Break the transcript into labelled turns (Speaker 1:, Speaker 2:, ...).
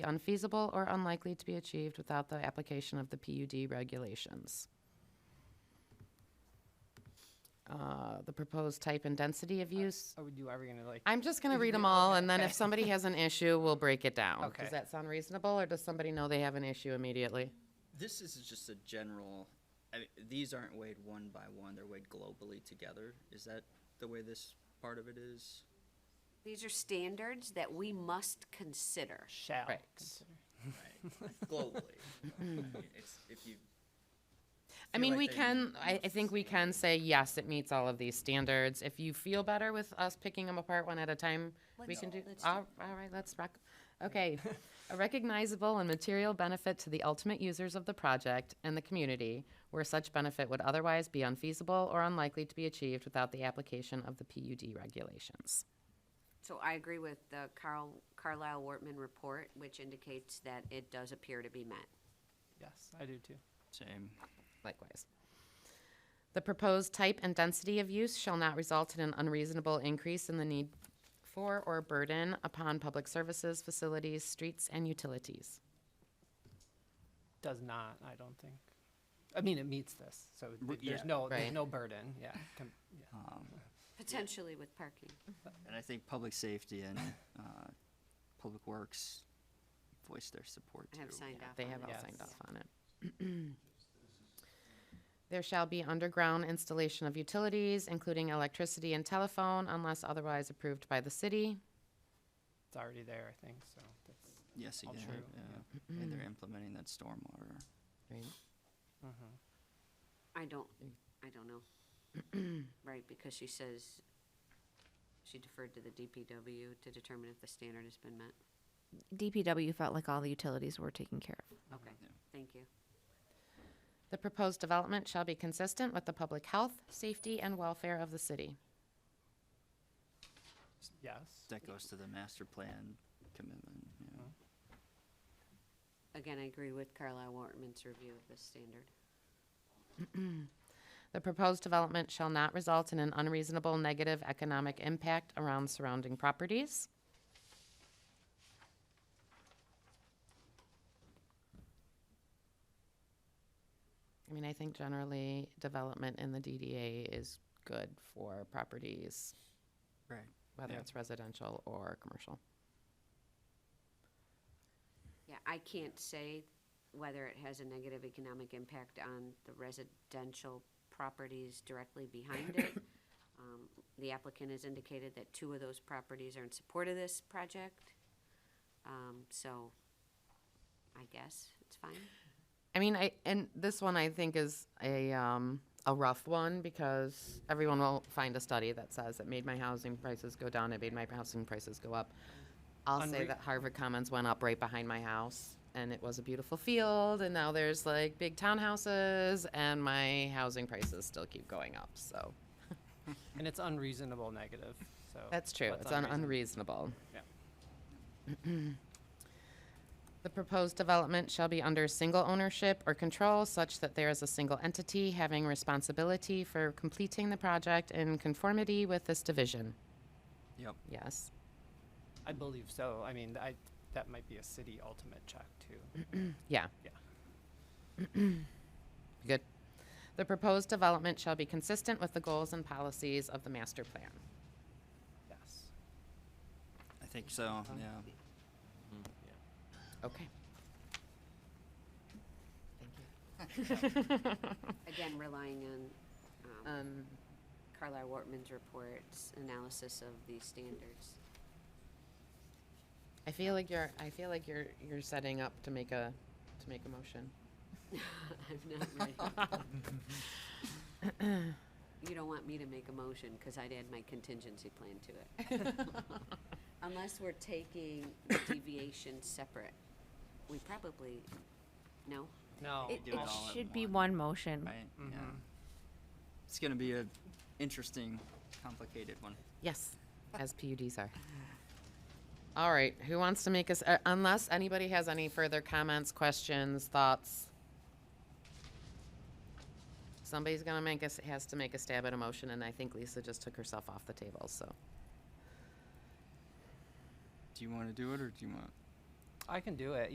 Speaker 1: unfeasible or unlikely to be achieved without the application of the PUD regulations. Uh, The proposed type and density of use,
Speaker 2: Are we, do, are we gonna like,
Speaker 1: I'm just gonna
Speaker 2: Did
Speaker 1: read
Speaker 2: Uh,
Speaker 1: them
Speaker 2: you read-
Speaker 1: all,
Speaker 2: okay,
Speaker 1: and then if
Speaker 2: okay.
Speaker 1: somebody has an issue, we'll break it down.
Speaker 2: Okay.
Speaker 1: Does that sound reasonable, or does somebody know they have an issue immediately?
Speaker 3: This is just a general, I mean, these aren't weighed one by one, they're weighed globally together. Is that the way this part of it is?
Speaker 4: These are standards that we must consider.
Speaker 2: shall?
Speaker 1: Right.
Speaker 2: consider-
Speaker 3: Right, globally. It's, if you.
Speaker 1: I
Speaker 3: feel
Speaker 1: mean,
Speaker 3: like
Speaker 1: we
Speaker 3: they
Speaker 1: can, I, I
Speaker 3: must-
Speaker 1: think we can say, yes, it meets all of these standards. If you feel better with us picking them apart one at a time, we
Speaker 4: Let's-
Speaker 1: can do,
Speaker 4: let's do
Speaker 1: all, all right, let's rock. Okay, a recognizable and material benefit to the ultimate users of the project and the community where such benefit would otherwise be unfeasible or unlikely to be achieved without the application of the PUD regulations.
Speaker 4: So I agree with the Carl, Carlisle Wortman report, which indicates that it does appear to be met.
Speaker 2: Yes, I do too.
Speaker 3: Same.
Speaker 1: Likewise. The proposed type and density of use shall not result in an unreasonable increase in the need for or burden upon public services, facilities, streets, and utilities.
Speaker 2: Does not, I don't think. I mean, it meets this, so th-
Speaker 3: Re-
Speaker 2: there's
Speaker 3: yeah.
Speaker 2: no,
Speaker 1: Right.
Speaker 2: there's no burden, yeah. com- yeah.
Speaker 4: Potentially with parking.
Speaker 3: Um, And I think public safety and, uh, public works voice their support
Speaker 4: I
Speaker 3: too.
Speaker 4: have signed off
Speaker 1: They
Speaker 4: on
Speaker 1: have all
Speaker 4: this.
Speaker 1: signed off on it. There shall be underground installation of utilities, including electricity and telephone, unless otherwise approved by the city.
Speaker 2: It's already there, I think, so that's,
Speaker 3: Yes,
Speaker 2: All
Speaker 3: again,
Speaker 2: true,
Speaker 3: yeah,
Speaker 1: Mm-hmm.
Speaker 3: and they're implementing that stormwater.
Speaker 1: Right.
Speaker 2: mm-hmm.
Speaker 4: I don't, I don't know. Right, because she says she deferred to the DPW to determine if the standard has been met.
Speaker 5: DPW felt like all the utilities were taken care of.
Speaker 1: Mm-hmm.
Speaker 4: Okay, thank you.
Speaker 1: The proposed development shall be consistent with the public health, safety, and welfare of the city.
Speaker 2: yes.
Speaker 3: That goes to the master plan commitment, yeah.
Speaker 4: Again, I agree with Carlisle Wortman's review of this standard.
Speaker 1: The proposed development shall not result in an unreasonable negative economic impact around surrounding properties. I mean, I think generally development in the DDA is good for properties,
Speaker 3: Right.
Speaker 1: whether
Speaker 3: Yeah.
Speaker 1: it's residential or commercial.
Speaker 4: Yeah, I can't say whether it has a negative economic impact on the residential properties directly behind it. Um, The applicant has indicated that two of those properties are in support of this project. Um, So I guess it's fine.
Speaker 1: I mean, I and this one I think is a um, a rough one because everyone will find a study that says it made my housing prices go down, it made my housing prices go up. I'll say
Speaker 2: Unre-
Speaker 1: that Harvard Commons went up right behind my house, and it was a beautiful field, and now there's like big townhouses, and my housing prices still keep going up. So
Speaker 2: And it's unreasonable negative, so.
Speaker 1: that's true.
Speaker 2: what's
Speaker 1: It's un-
Speaker 2: unreason-
Speaker 1: unreasonable.
Speaker 2: Yeah.
Speaker 1: The proposed development shall be under single ownership or control such that there is a single entity having responsibility for completing the project in conformity with this division.
Speaker 3: Yep,
Speaker 1: Yes.
Speaker 2: I believe so, I mean, I, that might be a city ultimate check
Speaker 1: Mm.
Speaker 2: too.
Speaker 1: Yeah.
Speaker 2: Yeah.
Speaker 1: Good. The proposed development shall be consistent with the goals and policies of the master plan.
Speaker 2: Yes.
Speaker 3: I think so, yeah.
Speaker 1: Okay.
Speaker 4: Again, relying on um,
Speaker 1: Um,
Speaker 4: Carlisle Wortman's report's analysis of these standards.
Speaker 1: I feel like you're, I feel like you're, you're setting up to make a, to make a motion.
Speaker 4: I'm not ready. You don't want me to make a motion, because I'd add my contingency plan to it. Unless we're taking the deviation separate, we probably, no?
Speaker 2: No.
Speaker 5: It,
Speaker 3: do it
Speaker 5: it
Speaker 3: all at
Speaker 5: should be
Speaker 3: once.
Speaker 5: one motion.
Speaker 3: Right, yeah. It's gonna be a interesting, complicated one.
Speaker 1: Yes, as PUDs are. All right, who wants to make us, uh, unless anybody has any further comments, questions, thoughts? Somebody's gonna make us, has to make a stab at a motion, and I think Lisa just took herself off the table, so.
Speaker 3: Do you wanna do it, or do you want?
Speaker 2: I can do it.